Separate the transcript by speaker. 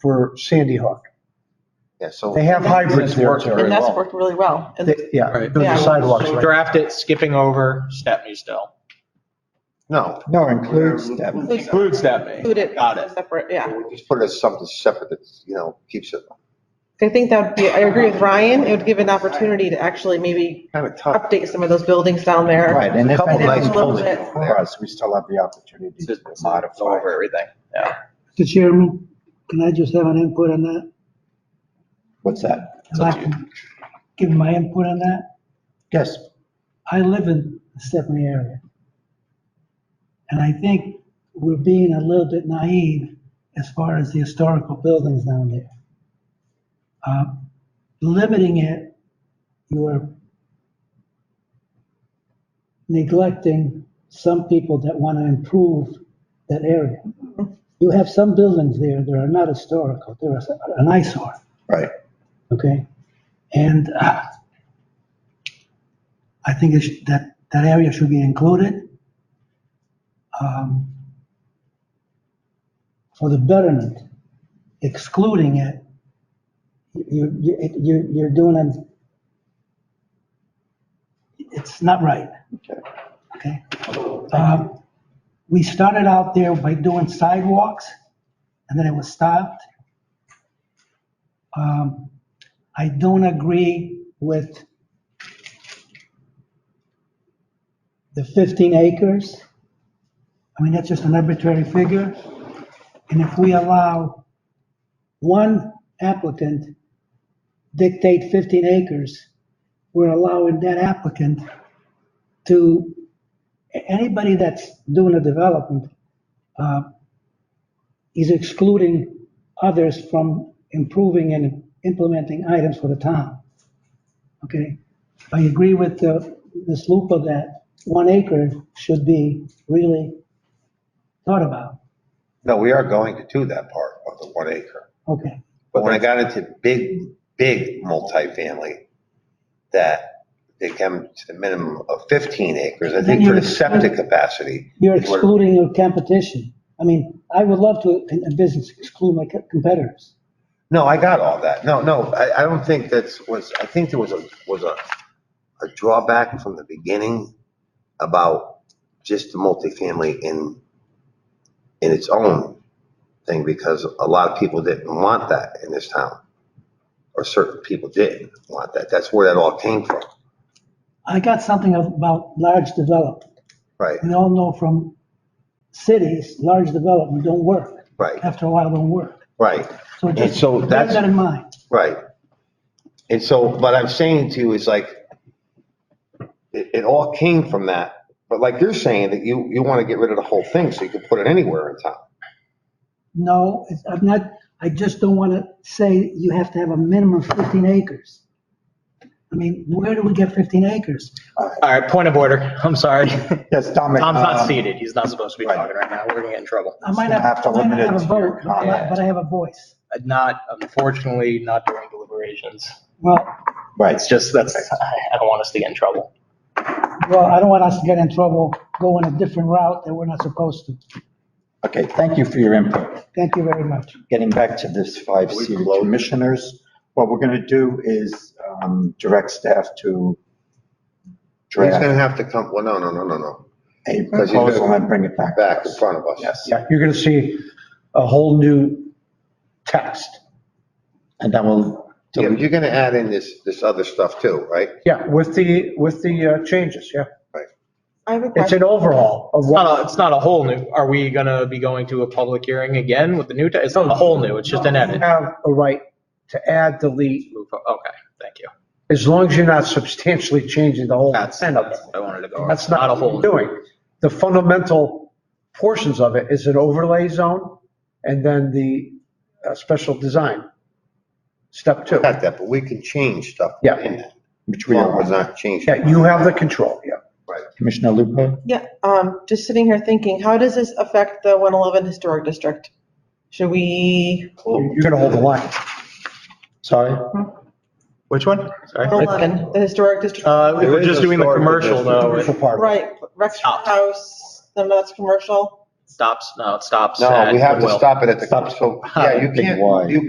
Speaker 1: for Sandy Hook.
Speaker 2: Yeah, so.
Speaker 1: They have hybrids
Speaker 2: It's
Speaker 1: there.
Speaker 2: worked
Speaker 1: too.
Speaker 2: very
Speaker 3: And that's
Speaker 2: well.
Speaker 3: worked really well. And
Speaker 1: They- Yeah,
Speaker 4: Right.
Speaker 1: the
Speaker 3: Yeah.
Speaker 1: sidewalks,
Speaker 4: So
Speaker 1: right.
Speaker 4: Draft it, skipping over Stepney still.
Speaker 2: No,
Speaker 1: No, includes them.
Speaker 4: Include
Speaker 3: include
Speaker 4: Stepney.
Speaker 3: it.
Speaker 4: Got it.
Speaker 3: Separate, yeah.
Speaker 2: we just put it as something separate that, you know, keeps it
Speaker 3: I think that would be, I agree with Ryan, it would give an opportunity to actually maybe
Speaker 2: kind of tough.
Speaker 3: update some of those buildings down there.
Speaker 5: Right, and if
Speaker 2: Couple
Speaker 3: of nice
Speaker 5: anything comes
Speaker 3: buildings.
Speaker 5: before us, we still have the opportunity to
Speaker 4: Just
Speaker 5: modify.
Speaker 4: Over everything. Yeah.
Speaker 6: Mr. Chairman, can I just have an input on that?
Speaker 5: What's that?
Speaker 6: I'd like to give my input on that.
Speaker 5: Yes,
Speaker 6: I live in the Stephanie area. And I think we're being a little bit naive as far as the historical buildings down there. Uh, Limiting it, you're neglecting some people that want to improve that area. You have some buildings there that are not historical, they're an eyesore.
Speaker 5: right.
Speaker 6: okay? And uh, I think it should- that, that area should be included um, for the betterment, excluding it, you, you, it- you- you're doing it, it's not right, okay? Um, We started out there by doing sidewalks, and then it was stopped. Um, I don't agree with the 15 acres. I mean, that's just an arbitrary figure. And if we allow one applicant dictate 15 acres, we're allowing that applicant to, a- anybody that's doing a development uh, is excluding others from improving and implementing items for the town. Okay, I agree with uh, Ms. Lupa that one acre should be really thought about.
Speaker 2: No, we are going to do that part of the one acre.
Speaker 6: Okay,
Speaker 2: But when I got into big, big multifamily, that they come to the minimum of 15 acres, I think for the septic capacity.
Speaker 6: you're
Speaker 2: is where-
Speaker 6: excluding your competition. I mean, I would love to, in a business, exclude my co- competitors.
Speaker 2: No, I got all that. No, no, I, I don't think that's, was, I think there was a, was a, a drawback from the beginning about just the multifamily in, in its own thing, because a lot of people didn't want that in this town. Or certain people didn't want that. That's where that all came from,
Speaker 6: I got something about large development.
Speaker 2: right?
Speaker 6: We all know from cities, large development don't work.
Speaker 2: Right.
Speaker 6: After a while, don't work.
Speaker 2: Right,
Speaker 6: So just
Speaker 2: so
Speaker 6: bear
Speaker 2: that's-
Speaker 6: that in mind.
Speaker 2: right. And so what I'm saying to you is like, it, it all came from that. But like you're saying that you, you want to get rid of the whole thing so you can put it anywhere in town.
Speaker 6: No, it's- I'm not, I just don't want to say you have to have a minimum of 15 acres. I mean, where do we get 15 acres?
Speaker 4: All right, point of order. I'm sorry. Tom's
Speaker 5: Yes, Dominic.
Speaker 4: not
Speaker 5: um,
Speaker 4: seated. He's not supposed to be
Speaker 5: right.
Speaker 4: talking right now. We're gonna get in trouble.
Speaker 6: I might
Speaker 5: You're
Speaker 6: not,
Speaker 5: gonna have to
Speaker 6: I might not
Speaker 5: limit it
Speaker 6: have a
Speaker 5: to your
Speaker 6: vote, but I-
Speaker 4: comment.
Speaker 6: but I have a voice.
Speaker 4: Not, unfortunately, not during deliberations.
Speaker 6: Well,
Speaker 5: Right,
Speaker 4: It's just, that's, I don't want us to get in trouble.
Speaker 6: well, I don't want us to get in trouble going a different route that we're not supposed to.
Speaker 5: okay, thank you for your input.
Speaker 6: Thank you very much.
Speaker 5: getting back to this five
Speaker 2: We
Speaker 5: C
Speaker 2: blow-
Speaker 5: commissioners, what we're gonna do is um, direct staff to
Speaker 2: He's going to have
Speaker 5: draft
Speaker 2: to come, well, no, no, no, no, no.
Speaker 5: a
Speaker 2: gonna-
Speaker 5: proposal and bring it back. to
Speaker 2: Back in
Speaker 5: us.
Speaker 2: front of us.
Speaker 5: Yes,
Speaker 1: Yeah, you're gonna see a whole new text.
Speaker 5: and then we'll,
Speaker 2: Yeah, but you're going to add in this, this other stuff too, right?
Speaker 1: Yeah, with the, with the uh, changes, yeah.
Speaker 3: I have a
Speaker 1: It's
Speaker 3: question.
Speaker 1: an overhaul of
Speaker 4: It's
Speaker 1: what,
Speaker 4: not, a- Oh, it's not a whole new, are we gonna be going to a public hearing again with the new, te- it's not a whole new, it's just an
Speaker 1: you
Speaker 4: edit.
Speaker 1: have a right to add, delete,
Speaker 4: Move o- Okay, thank you.
Speaker 1: as long as you're not substantially changing the whole
Speaker 4: That's,
Speaker 1: intent of it.
Speaker 4: that's what I wanted to go. over.
Speaker 1: That's not
Speaker 4: a
Speaker 1: what
Speaker 4: whole
Speaker 1: we're
Speaker 4: new.
Speaker 1: doing. The fundamental portions of it is an overlay zone and then the uh, special design. Step two.
Speaker 2: Got that, but we can change stuff.
Speaker 1: Yeah.
Speaker 2: in that.
Speaker 5: which we
Speaker 2: Well, it's
Speaker 5: are,
Speaker 2: not changed.
Speaker 1: Yeah, you have the control, yeah.
Speaker 5: Commissioner Lupo?
Speaker 3: Yeah, um, just sitting here thinking, how does this affect the 111 Historic District? Should we,
Speaker 2: Oh,
Speaker 1: You're gonna hold the line.
Speaker 5: Sorry?
Speaker 4: Which one? Sorry.
Speaker 3: 111, the Historic District?
Speaker 4: Uh, if we're
Speaker 2: There is
Speaker 4: just
Speaker 2: a
Speaker 4: doing the
Speaker 2: store, but
Speaker 4: commercial
Speaker 2: there's-
Speaker 4: though.
Speaker 5: Commercial part.
Speaker 3: Right, Rexford
Speaker 4: Stop.
Speaker 3: House, no, that's commercial.
Speaker 4: stops, no, it stops
Speaker 2: No,
Speaker 4: at
Speaker 2: we have to
Speaker 4: Goodwill.
Speaker 2: stop it at the, so, yeah, you
Speaker 5: Big
Speaker 2: can't,
Speaker 5: Y.
Speaker 2: you